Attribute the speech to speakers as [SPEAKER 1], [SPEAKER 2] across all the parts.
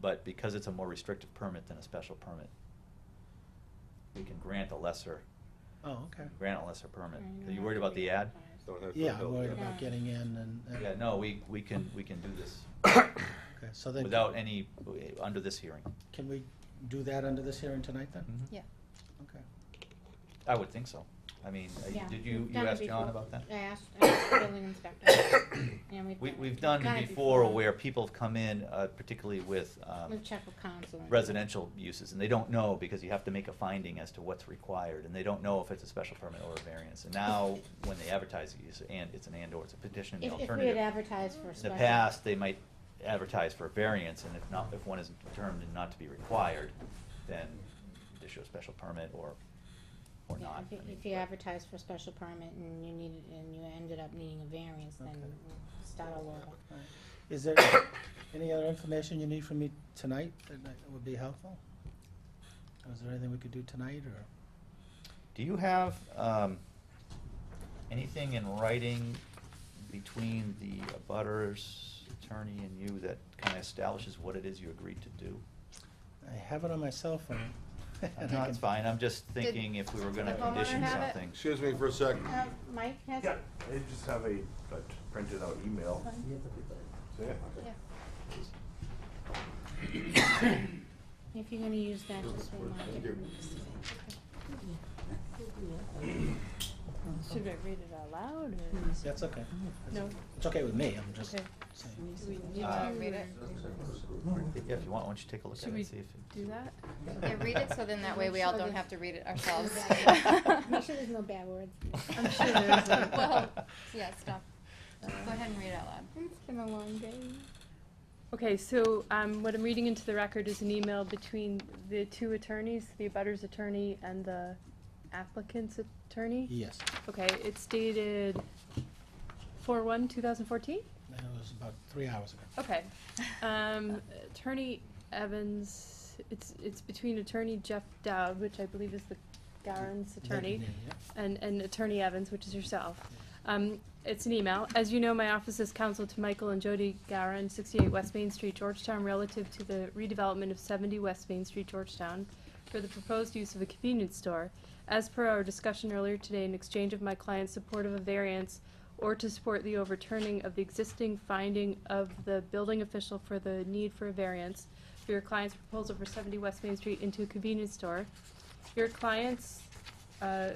[SPEAKER 1] but because it's a more restrictive permit than a special permit, we can grant a lesser,
[SPEAKER 2] Oh, okay.
[SPEAKER 1] grant a lesser permit.
[SPEAKER 3] Right,
[SPEAKER 1] Are you
[SPEAKER 3] no,
[SPEAKER 1] worried about the ad?
[SPEAKER 4] Don't have to
[SPEAKER 2] Yeah, I'm
[SPEAKER 4] build
[SPEAKER 2] worried
[SPEAKER 4] it up.
[SPEAKER 2] about getting in and. and-
[SPEAKER 1] Yeah, no, we, we can, we can do this
[SPEAKER 2] Okay, so then.
[SPEAKER 1] without any, uh, under this hearing.
[SPEAKER 2] Can we do that under this hearing tonight then?
[SPEAKER 1] Mhm.
[SPEAKER 3] Yeah.
[SPEAKER 2] Okay.
[SPEAKER 1] I would think so. I mean, uh,
[SPEAKER 3] Yeah,
[SPEAKER 1] did you,
[SPEAKER 3] we've
[SPEAKER 1] you
[SPEAKER 3] done it
[SPEAKER 1] asked John
[SPEAKER 3] before.
[SPEAKER 1] about that?
[SPEAKER 3] I asked, I asked the building inspector. and
[SPEAKER 1] We,
[SPEAKER 3] it-
[SPEAKER 1] we've done
[SPEAKER 3] it
[SPEAKER 1] it before where people have come in, uh, particularly with, um,
[SPEAKER 3] We've checked with council. and-
[SPEAKER 1] residential uses, and they don't know because you have to make a finding as to what's required, and they don't know if it's a special permit or a variance. And now, when they advertise it, you say, and, it's an and/or, it's a petition, the
[SPEAKER 3] If, if we had
[SPEAKER 1] alternative.
[SPEAKER 3] advertised for
[SPEAKER 1] In
[SPEAKER 3] a
[SPEAKER 1] the
[SPEAKER 3] special.
[SPEAKER 1] past, they might advertise for a variance, and if not, if one is determined not to be required, then issue a special permit or, or
[SPEAKER 3] Yeah,
[SPEAKER 1] not.
[SPEAKER 3] if you-
[SPEAKER 1] I mean,
[SPEAKER 3] If you
[SPEAKER 1] but-
[SPEAKER 3] advertised for a special permit and you needed, and you ended up needing a variance, then
[SPEAKER 2] Okay.
[SPEAKER 3] we'll start all over.
[SPEAKER 2] All right. Is there any other information you need from me tonight that that would be helpful? Or Is there anything we could do tonight or?
[SPEAKER 1] Do you have um, anything in writing between the abutters attorney and you that kind of establishes what it is you agreed to do?
[SPEAKER 2] I have it on my cell phone. and I
[SPEAKER 1] No,
[SPEAKER 2] can-
[SPEAKER 1] it's fine, I'm just thinking if we were gonna
[SPEAKER 3] Did the homeowner
[SPEAKER 1] condition
[SPEAKER 3] have it?
[SPEAKER 1] something.
[SPEAKER 4] Excuse me for a sec.
[SPEAKER 3] Um, Mike has.
[SPEAKER 5] Yeah, I just have a a printed out email. See it?
[SPEAKER 3] Yeah. If you're gonna use that, just remind
[SPEAKER 4] Thank you.
[SPEAKER 3] me. Should I read it out loud
[SPEAKER 2] That's okay.
[SPEAKER 3] No.
[SPEAKER 2] It's okay with me, I'm just
[SPEAKER 3] Okay.
[SPEAKER 2] saying.
[SPEAKER 1] you
[SPEAKER 6] Uh,
[SPEAKER 1] wanna read
[SPEAKER 3] it?
[SPEAKER 1] Yeah, if you want, why don't you take a look at it and see if. it-
[SPEAKER 6] Do that? Yeah, read it so then that way we all don't have to read it ourselves.
[SPEAKER 3] Make sure there's no bad words.
[SPEAKER 6] I'm sure uh, there's a- well, yeah, stop. Go ahead and read it out loud.
[SPEAKER 3] It's been a long day.
[SPEAKER 7] Okay, so um, what I'm reading into the record is an email between the two attorneys, the abutters attorney and the applicant's attorney?
[SPEAKER 2] Yes,
[SPEAKER 7] Okay, it's dated four one, two thousand fourteen?
[SPEAKER 2] that was about three hours ago.
[SPEAKER 7] Okay. Um, attorney Evans, it's, it's between attorney Jeff Dowd, which I believe is the Garen's attorney.
[SPEAKER 2] Designated, yeah.
[SPEAKER 7] and, and Attorney Evans, which is yourself. Um, it's an email. As you know, my office is counsel to Michael and Jody Garin, 68 West Main Street, Georgetown, relative to the redevelopment of 70 West Main Street, Georgetown, for the proposed use of a convenience store. As per our discussion earlier today, in exchange of my client's support of a variance or to support the overturning of the existing finding of the building official for the need for a variance for your client's proposal for 70 West Main Street into a convenience store, your client's uh,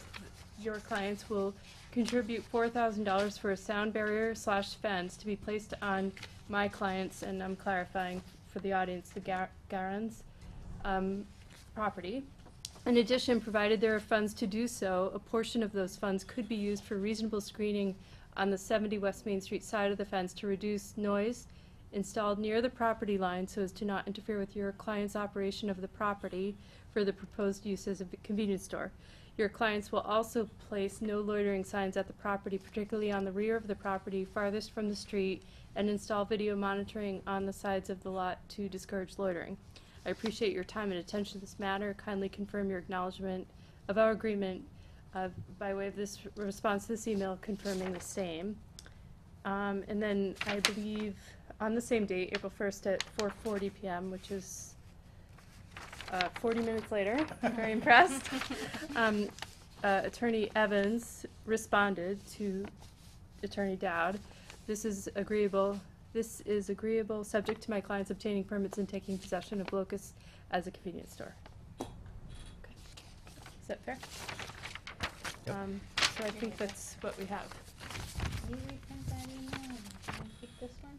[SPEAKER 7] your clients will contribute four thousand dollars for a sound barrier slash fence to be placed on my clients, and I'm clarifying for the audience, the Gar- Garans, um, property. In addition, provided there are funds to do so, a portion of those funds could be used for reasonable screening on the seventy West Main Street side of the fence to reduce noise installed near the property line so as to not interfere with your client's operation of the property for the proposed use as a convenience store. Your clients will also place no loitering signs at the property, particularly on the rear of the property farthest from the street, and install video monitoring on the sides of the lot to discourage loitering. I appreciate your time and attention to this matter. Kindly confirm your acknowledgement of our agreement uh, by way of this response to this email confirming the same. Um, and then I believe on the same date, April first at four forty PM, which is uh, forty minutes later, I'm very impressed. Um, uh, Attorney Evans responded to Attorney Dowd. This is agreeable, this is agreeable, subject to my clients obtaining permits and taking possession of Locust as a convenience store. Okay. Is that fair?
[SPEAKER 1] Yep.
[SPEAKER 7] Um, so I think that's what we have.
[SPEAKER 3] Can you reprint that email and and pick this one?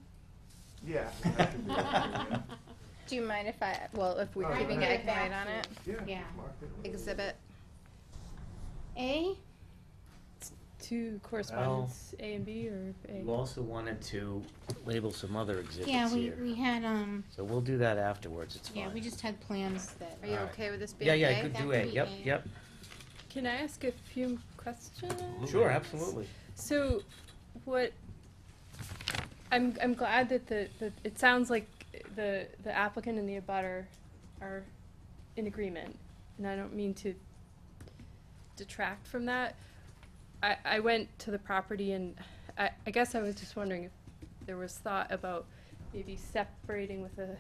[SPEAKER 5] Yeah. I can do that,
[SPEAKER 6] Do you mind if I, well, if we're
[SPEAKER 5] Oh,
[SPEAKER 6] giving
[SPEAKER 5] yeah.
[SPEAKER 6] it, I can write on it?
[SPEAKER 5] Yeah.
[SPEAKER 3] Yeah.
[SPEAKER 5] mark it.
[SPEAKER 6] Exhibit
[SPEAKER 3] A,
[SPEAKER 7] Two correspondents, A and B or A?
[SPEAKER 8] You also wanted to label some other
[SPEAKER 3] yeah,
[SPEAKER 8] exhibits
[SPEAKER 3] we,
[SPEAKER 8] here.
[SPEAKER 3] we had, um,
[SPEAKER 8] So we'll do that afterwards, it's fine.
[SPEAKER 3] yeah, we just had plans that.
[SPEAKER 6] Are you
[SPEAKER 8] Alright.
[SPEAKER 6] okay with this being
[SPEAKER 8] Yeah, yeah,
[SPEAKER 6] A?
[SPEAKER 8] you could
[SPEAKER 3] That
[SPEAKER 8] do
[SPEAKER 3] could
[SPEAKER 8] A,
[SPEAKER 3] be
[SPEAKER 8] yep,
[SPEAKER 3] A.
[SPEAKER 8] yep.
[SPEAKER 7] Can I ask a few questions?
[SPEAKER 8] Sure, absolutely.
[SPEAKER 7] So, what, I'm, I'm glad that the, that it sounds like the, the applicant and the abutter are in agreement, and I don't mean to detract from that. I, I went to the property and I, I guess I was just wondering if there was thought about maybe separating with a